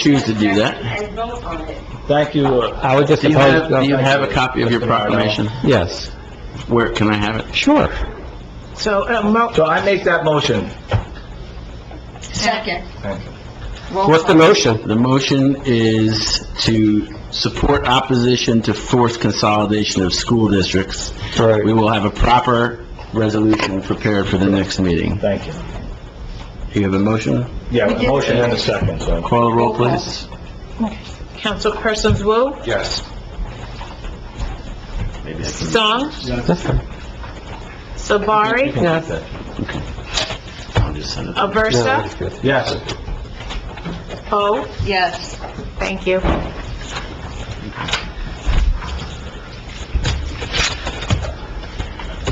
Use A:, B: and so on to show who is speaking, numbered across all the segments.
A: choose to do that.
B: And vote on it.
C: Thank you. uh,
D: I would just
A: Do you have,
D: oppose...
A: do you have a copy of your proclamation?
D: Yes,
A: Where, can I have it?
D: sure.
E: So, uh, mo-
C: So I make that motion.
B: Second.
C: Thank you.
B: Roll
D: What's the
B: call.
D: motion?
A: The motion is to support opposition to forced consolidation of school districts.
D: Right.
A: We will have a proper resolution prepared for the next meeting.
C: Thank you.
A: Do you have a motion?
C: Yeah, a motion and a second, so.
A: Call the roll, please.
E: Councilperson Wu,
C: Yes.
E: Song,
D: That's fine.
E: Sabari,
D: Yes.
A: I'll just send it.
D: No,
E: Aversa,
D: it's good.
C: Yes.
E: Poe.
B: Yes.
E: Thank you.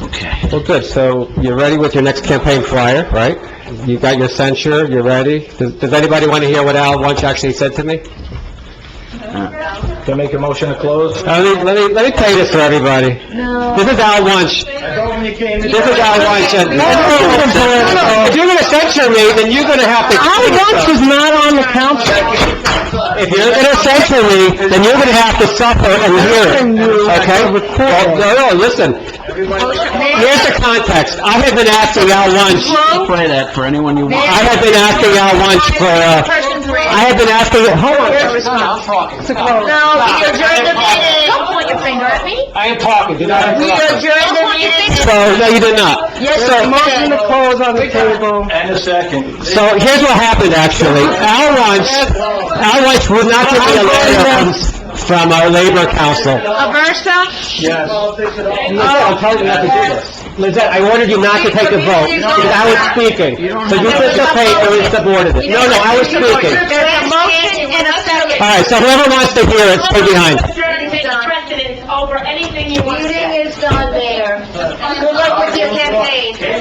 A: Okay.
D: Well, good, so you're ready with your next campaign flyer, right? You got your censure, you're ready. Does does anybody want to hear what Al Wunsch actually said to me?
C: Can I make a motion to close?
D: Let me, let me, let me play this for everybody. This is Al Wunsch.
C: I told him you came
D: This is Al Wunsch. and- If you're gonna censure me, then you're gonna have to... Al Wunsch is not on the council. If you're gonna censure me, then you're gonna have to suffer and hear it, okay? Well, No, no, listen, here's the context. I have been asking Al Wunsch,
A: Play that for anyone you want.
D: I have been asking Al Wunsch for, uh,
E: Person three.
D: I have been asking, hold on.
E: No, we adjourn the meeting.
B: Don't point your finger at me.
D: I am talking, do not
E: We adjourn the meeting.
D: So, no, you did not.
E: Yes, you did.
C: And a second.
D: So here's what happened, actually. Al Wunsch, Al Wunsch would not give me a letter from- from our labor council.
E: Aversa,
C: Yes.
E: "Oh,
D: Lizette, I'm telling you not to do this. Lizette, I ordered you not to take the vote, because I was speaking. So you participated, but you subordinate. it. No, no, I was speaking.
E: there's a motion and a second.
D: All right, so whoever wants to hear it, stay behind.
F: precedence over anything you want to say.
B: Meeting is done there.
E: Good luck with your campaign.